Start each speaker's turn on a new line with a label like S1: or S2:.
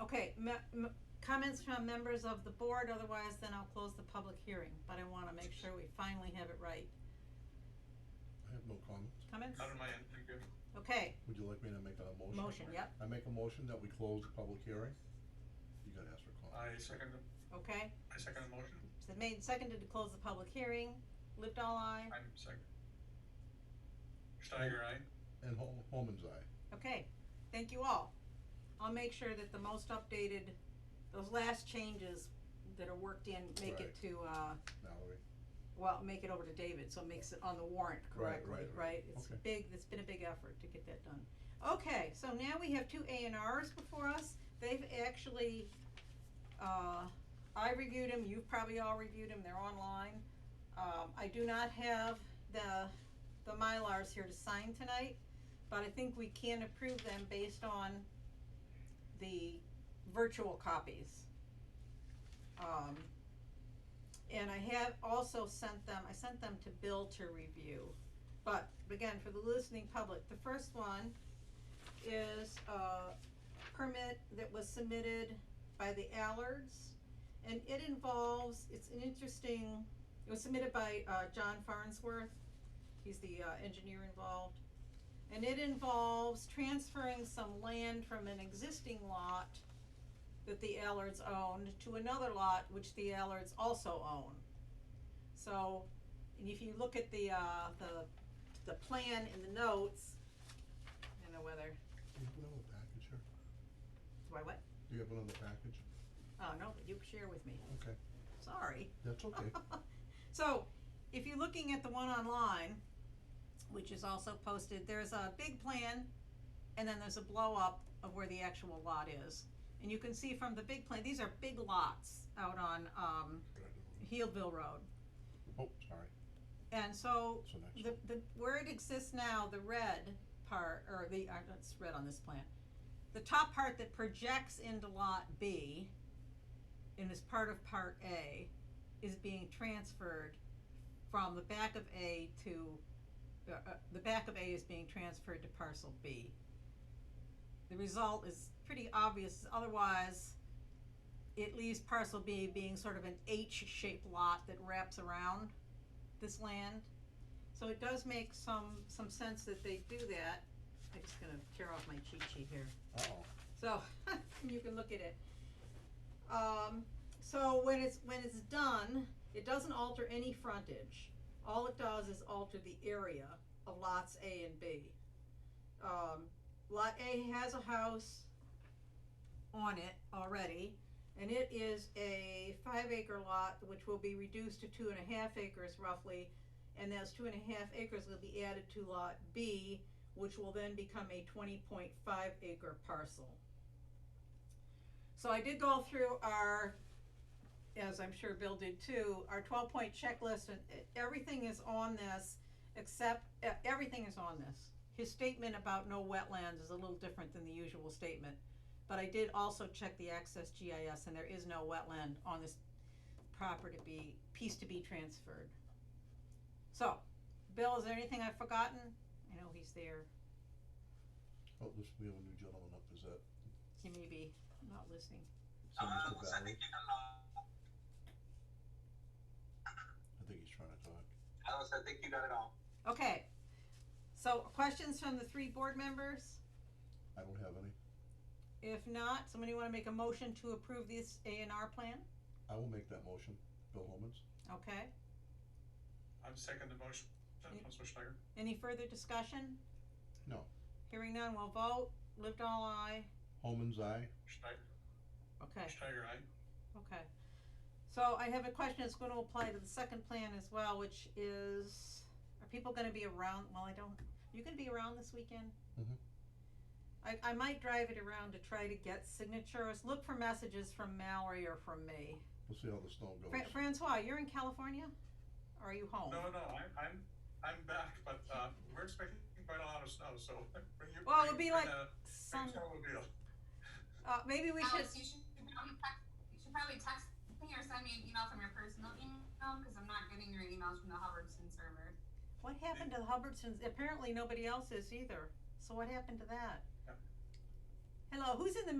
S1: Okay, me- m- comments from members of the board, otherwise then I'll close the public hearing, but I wanna make sure we finally have it right.
S2: I have no comments.
S1: Comments?
S3: Not on my end, thank you.
S1: Okay,
S2: Would you like me to make a motion?
S1: motion, yep,
S2: I make a motion that we close the public hearing. You gotta ask for
S3: I
S2: comments.
S3: second, the-
S1: okay,
S3: I second the motion,
S1: so made and seconded to close the public hearing, lived all eye,
S3: I'm second. Steiger, aye?
S2: And Hol- Holman's eye.
S1: okay, thank you all. I'll make sure that the most updated, those last changes that are worked in, make it
S2: Right.
S1: to, uh,
S2: Mallory.
S1: well, make it over to David, so it makes it on the warrant
S2: Right,
S1: correctly,
S2: right, right.
S1: right? It's
S2: Okay.
S1: big, it's been a big effort to get that done. Okay, so now we have two A and Rs before us. They've actually, uh, I reviewed them, you've probably all reviewed them, they're online. Um, I do not have the, the Mylars here to sign tonight, but I think we can approve them based on the virtual copies. Um, and I have also sent them, I sent them to Bill to review. But again, for the listening public, the first one is a permit that was submitted by the Allards. And it involves, it's an interesting, it was submitted by uh John Farnsworth, he's the uh engineer involved. And it involves transferring some land from an existing lot that the Allards owned to another lot which the Allards also own. So, and if you look at the, uh, the, the plan in the notes, I don't know whether,
S2: Do you have another package here?
S1: do I what?
S2: Do you have another package?
S1: Oh, no, but you share with me,
S2: Okay,
S1: sorry.
S2: that's okay.
S1: So, if you're looking at the one online, which is also posted, there's a big plan and then there's a blow up of where the actual lot is. And you can see from the big plan, these are big lots out on, um, Healdville Road.
S2: Oh, sorry,
S1: And so
S2: so next
S1: the
S2: one.
S1: the where it exists now, the red part or the uh, it's red on this plan. The top part that projects into lot B and is part of part A is being transferred from the back of A to uh, uh, the back of A is being transferred to parcel B. The result is pretty obvious otherwise it leaves parcel B being sort of an H-shaped lot that wraps around this land. So it does make some, some sense that they do that. I'm just gonna tear off my cheat sheet here.
S2: Uh-oh,
S1: So, you can look at it. Um, so when it's, when it's done, it doesn't alter any frontage. All it does is alter the area of lots A and B. Um, lot A has a house on it already, and it is a five acre lot, which will be reduced to two and a half acres roughly. And those two and a half acres will be added to lot B, which will then become a twenty point five acre parcel. So I did go through our, as I'm sure Bill did too, our twelve point checklist and e- everything is on this except, e- everything is on this. His statement about no wetlands is a little different than the usual statement, but I did also check the access GIS and there is no wetland on this property to be, piece to be transferred. So, Bill, is there anything I've forgotten? I know he's there,
S2: oh, this, we have a new gentleman up, is that,
S1: he may be not listening.
S2: is
S3: Ah,
S2: that Mr. Valley? I think he's trying to talk.
S3: Alice, I think you got it all.
S1: Okay, so questions from the three board members?
S2: I don't have any.
S1: If not, somebody wanna make a motion to approve this A and R plan?
S2: I will make that motion. Bill Holman's?
S1: Okay,
S3: I'm second the motion, Uh, Councilor Steiger.
S1: any further discussion?
S2: No.
S1: Hearing none, we'll vote, lived all eye,
S2: Holman's eye?
S3: Steiger,
S1: okay,
S3: Steiger, aye?
S1: okay. So I have a question that's gonna apply to the second plan as well, which is, are people gonna be around, well, I don't, you gonna be around this weekend?
S2: Mhm.
S1: I, I might drive it around to try to get signatures, look for messages from Mallory or from me.
S2: We'll see how the snow goes.
S1: Fra- Francois, you're in California? Or are you home?
S3: No, no, I'm, I'm, I'm back, but, uh, we're expecting quite a lot of snow, so bring your.
S1: Well, it would
S3: bring-
S1: be like
S3: bring the-
S1: Some,
S3: Bring snowmobile.
S1: uh, maybe we should,
S4: Alex, you should probably text, you should probably text me or send me an email from your personal email because I'm not getting your emails from the Hubbardson server.
S1: what happened to the Hubbardsons? Apparently nobody else is either. So what happened to that?
S3: Yep.
S1: Hello, who's in the